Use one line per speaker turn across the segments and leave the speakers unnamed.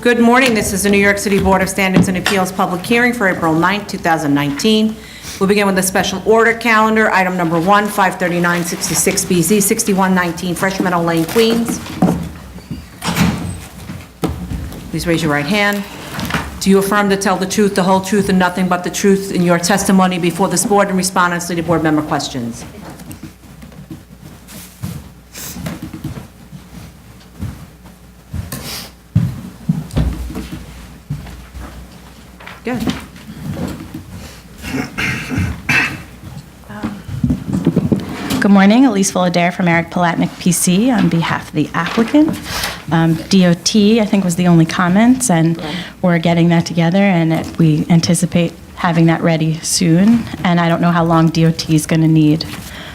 Good morning, this is the New York City Board of Standards and Appeals Public Hearing for April 9, 2019. We'll begin with the special order calendar, item number one, 53966BZ, 6119 Fresh Meadow Lane, Queens. Please raise your right hand. Do you affirm to tell the truth, the whole truth, and nothing but the truth in your testimony before this board and respond honestly to board member questions? Good.
Good morning, Elise Fullader from Eric Palatnik PC on behalf of the applicant. Um, DOT, I think, was the only comments, and we're getting that together, and it- we anticipate having that ready soon, and I don't know how long DOT is going to need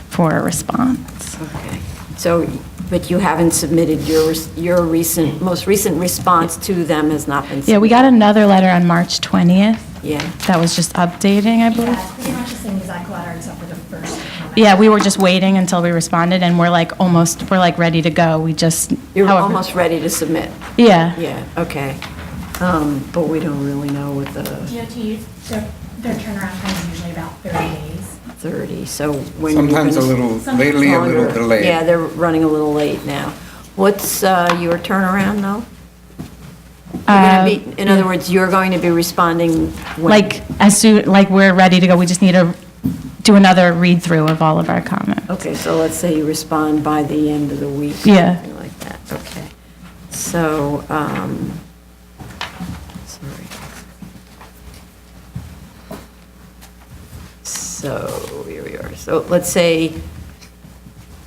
for a response.
Okay. So, but you haven't submitted your, your recent, most recent response to them has not been submitted?
Yeah, we got another letter on March 20th.
Yeah.
That was just updating, I believe.
Yeah, Uh, pretty much the same exact letter except for the first comment.
Yeah, we were just waiting until we responded, and we're like, almost, we're like, ready to go. We just,
You're
however-
almost ready to submit?
Yeah.
Yeah, okay. Um, But we don't really know what the
DOT, their their turnaround time is usually about 30 days.
30, so when you're gonna...
Sometimes a little, lately a little
Longer.
delayed.
Yeah, they're running a little late now. What's uh, your turnaround, though?
Uh,
You're gonna be- In other
yeah.
words, you're going to be responding when?
Like, as soon, like, we're ready to go, we just need to do another read-through of all of our comments.
Okay, so let's say you respond by the end of the week. or
Yeah.
Something like that, okay. So, um, sorry. So, here we are. So let's say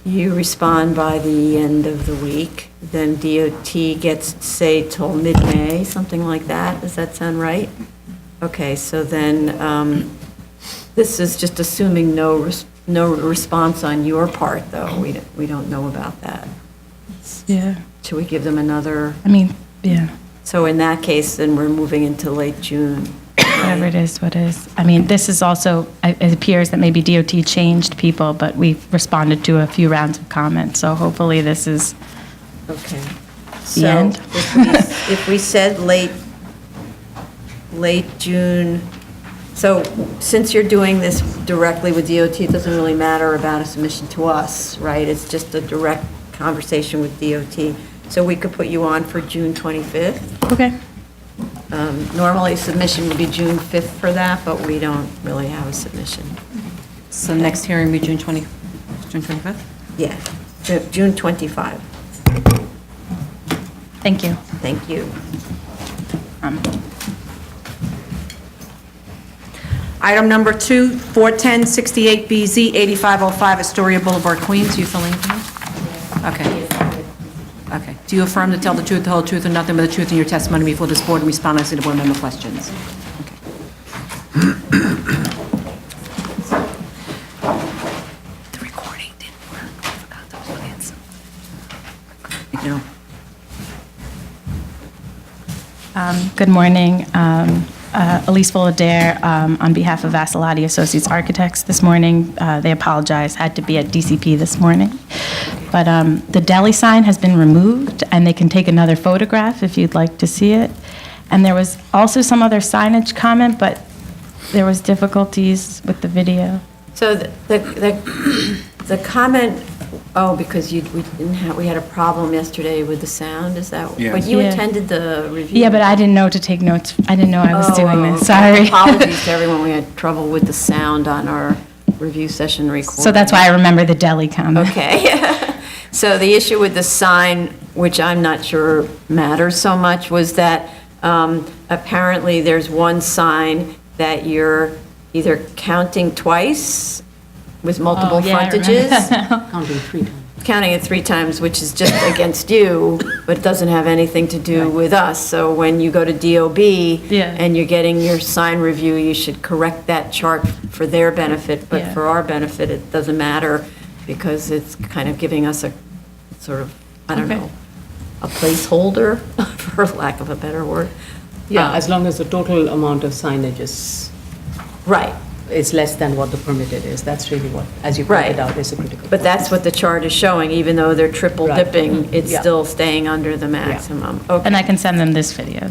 you respond by the end of the week, then DOT gets, say, till mid-May, something like that. Does that sound right? Okay, so then, um, this is just assuming no, res- no response on your part, though. We, don't- we don't know about that.
Yeah,
Should we give them another?
I mean, yeah,
So in that case, then we're moving into late June.
whatever it is, what is. I mean, this is also, I- it appears that maybe DOT changed people, but we've responded to a few rounds of comments, so hopefully this is,
Okay.
The end.
So if we- if we said late, late June, so since you're doing this directly with DOT, it doesn't really matter about a submission to us, right? It's just a direct conversation with DOT. So we could put you on for June 25th?
okay,
Um, Normally, submission would be June 5th for that, but we don't really have a submission.
So next hearing will be June 20, June 25th?
Yeah, Ju- June 25.
thank you.
Thank you.
Um,
Item number two, 41068BZ, 8505 Astoria Boulevard, Queens. You filling in? for me? Okay. Okay. Do you affirm to tell the truth, the whole truth, and nothing but the truth in your testimony before this board and respond honestly to board member questions? The recording didn't work. I forgot those plans. No.
Um, Good morning. Um, uh, Elise Fullader, um, on behalf of Vassalotti Associates Architects this morning. Uh, They apologize, had to be at DCP this morning. But um, the deli sign has been removed, and they can take another photograph if you'd like to see it. And there was also some other signage comment, but there was difficulties with the video.
So the, the, the comment, oh, because you, we didn't have, we had a problem yesterday with the sound, is that?
Yeah.
But you
Yeah.
attended the review.
Yeah, but I didn't know to take notes. I didn't know I was
Oh,
doing this,
okay.
sorry.
Apologies to everyone, we had trouble with the sound on our review session recording.
So that's why I remember the deli comment.
Okay. So the issue with the sign, which I'm not sure matters so much, was that um, apparently there's one sign that you're either counting twice with multiple
Oh, yeah, I remember
frontages.
that
Counting it three times, which is just against you, but doesn't have anything to do with us. So when you go to DOB
Yeah.
and you're getting your sign review, you should correct that chart for their benefit, but
Yeah.
for our benefit, it doesn't matter because it's kind of giving us a sort of, I don't
Okay.
know, a placeholder, for lack of a better word.
Yeah,
Um,
as long as the total amount of signage is,
Right,
is less than what the permitted is, that's really what, as you
Right.
pointed out, is a critical.
but that's what the chart is showing, even though they're triple
Right.
dipping, it's
Yeah.
still staying under the maximum. Okay.
And I can send them this video.